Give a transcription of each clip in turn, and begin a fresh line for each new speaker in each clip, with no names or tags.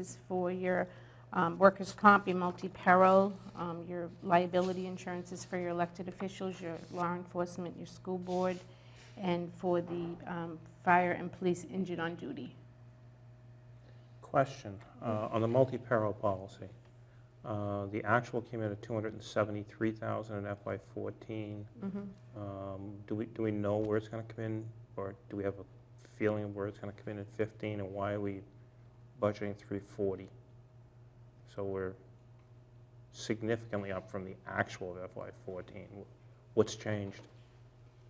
is for your um, workers' comp, your multi-peril, um, your liability insurance is for your elected officials, your law enforcement, your school board, and for the um, fire and police injured on duty.
Question, uh, on the multi-peril policy, uh, the actual came in at 273,000 in FY '14. Um, Do we, do we know where it's going to come in, or do we have a feeling of where it's going to come in in '15, and why are we budgeting 340? So we're significantly up from the actual of FY '14. What's changed?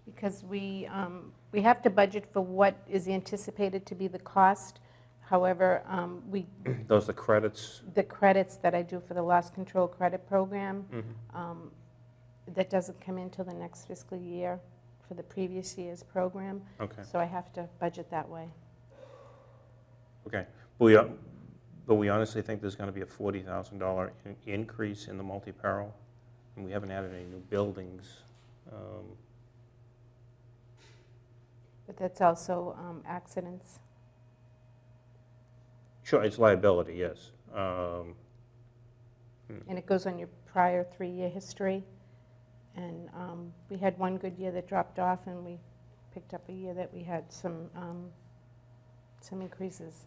Because we, um, we have to budget for what is anticipated to be the cost. However, um, we,
Those are the credits?
the credits that I do for the loss control credit program, um, that doesn't come in till the next fiscal year for the previous year's program.
Okay.
So I have to budget that way.
Okay, but we, uh, but we honestly think there's gonna be a forty thousand dollar increase in the multi-peril, and we haven't added any new buildings. Um,
But that's also um, accidents.
Sure, it's liability, yes. Um,
And it goes on your prior three-year history. And um, we had one good year that dropped off, and we picked up a year that we had some, um, some increases.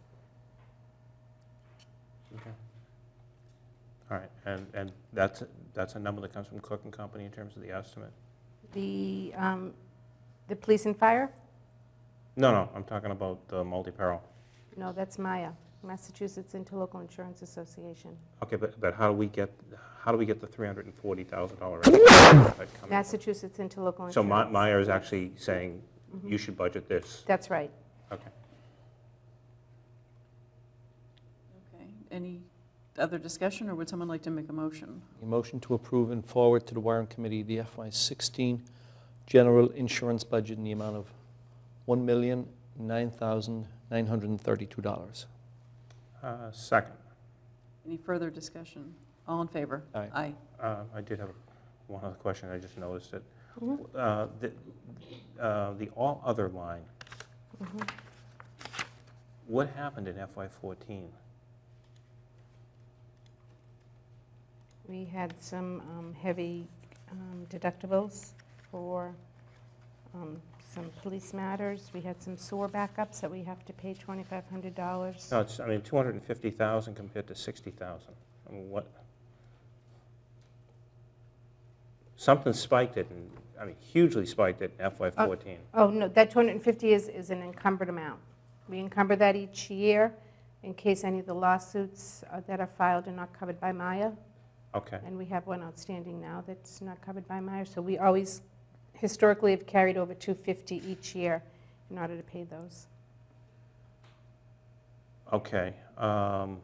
All right, and, and that's, that's a number that comes from Cook and Company in terms of the estimate?
The, um, the police and fire?
No, no, I'm talking about the multi-peril.
No, that's MIA, Massachusetts Interlocal Insurance Association.
Okay, but, but how do we get, how do we get the three hundred and forty thousand dollar?
Massachusetts Interlocal Insurance. Mm-hmm.
So Ma- Meyer is actually saying, you should budget this,
That's right.
okay.
Okay, any other discussion, or would someone like to make a motion?
A motion to approve and forward to the Warren Committee the FY16 general insurance budget in the amount of $1,009,932.
Uh, Second.
Any further discussion? All in favor?
Aye.
Aye.
Uh, I did have one other question, I just noticed it.
Mhm.
Uh, The uh, the all other line,
Mhm.
what happened in FY '14?
We had some um, heavy um, deductibles for um, some police matters. We had some sewer backups that we have to pay $2,500.
No, it's, I mean, 250,000 compared to 60,000. I mean, what? Something spiked it, and, I mean, hugely spiked it in FY
Oh.
'14.
Oh, no, that 250 is, is an encumbered amount. We encumber that each year in case any of the lawsuits uh, that are filed are not covered by Maya.
Okay,
And we have one outstanding now that's not covered by Meyer, so we always historically have carried over 250 each year in order to pay those.
okay. um,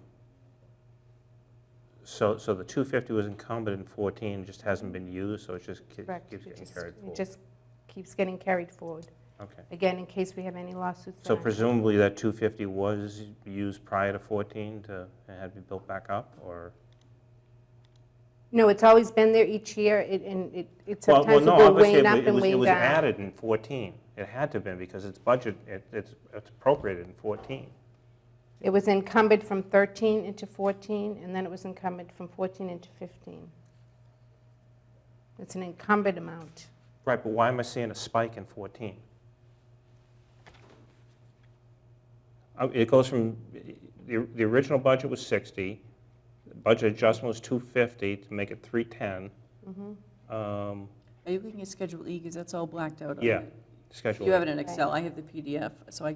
So, so the 250 was incumbent in '14, just hasn't been used, so it just ki-
Correct.
keeps
It
getting
just-
carried
It
forward.
just keeps getting carried forward,
Okay.
again, in case we have any lawsuits.
So
that aren't-
presumably that 250 was used prior to 14 to, and had to be built back up, or?
No, it's always been there each year, it- and it it
Well, well,
sometimes
no,
will
obviously
wane
it
up
wa- it
and
was- It
wane
was
down.
added in 14. It had to have been, because it's budget, it- it's it's appropriated in 14.
It was encumbered from 13 into 14, and then it was encumbered from 14 into 15. It's an encumbered amount.
Right, but why am I seeing a spike in 14? Uh, It goes from, the the original budget was 60, the budget adjustment was 250 to make it 310.
Mm-hmm.
Um,
Are you looking at Schedule E, because that's all blacked out on
Yeah,
it?
schedule.
You have
A.
it in Excel, I have the PDF, so I,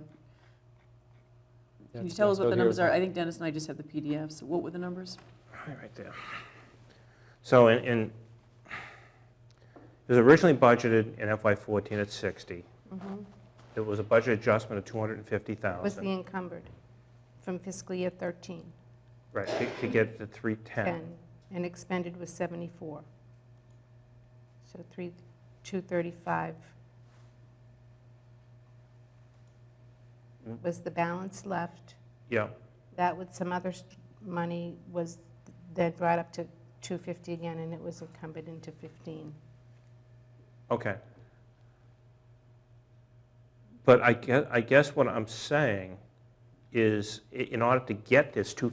can you tell us what the numbers are? I think Dennis and I just have the PDFs, what were the numbers?
Right right there. So in, in, it was originally budgeted in FY '14 at 60. There was a budget adjustment of
It was the
250,000,
encumbered from fiscal year 13.
right, to- to get to 310.
10, and expended was 74. So 3, 235
Mm.
was the balance left.
Yeah,
That with some other s- money was then brought up to 250 again, and it was encumbered into 15.
okay. But I guess, I guess what I'm saying is, i- in order to get this 250,000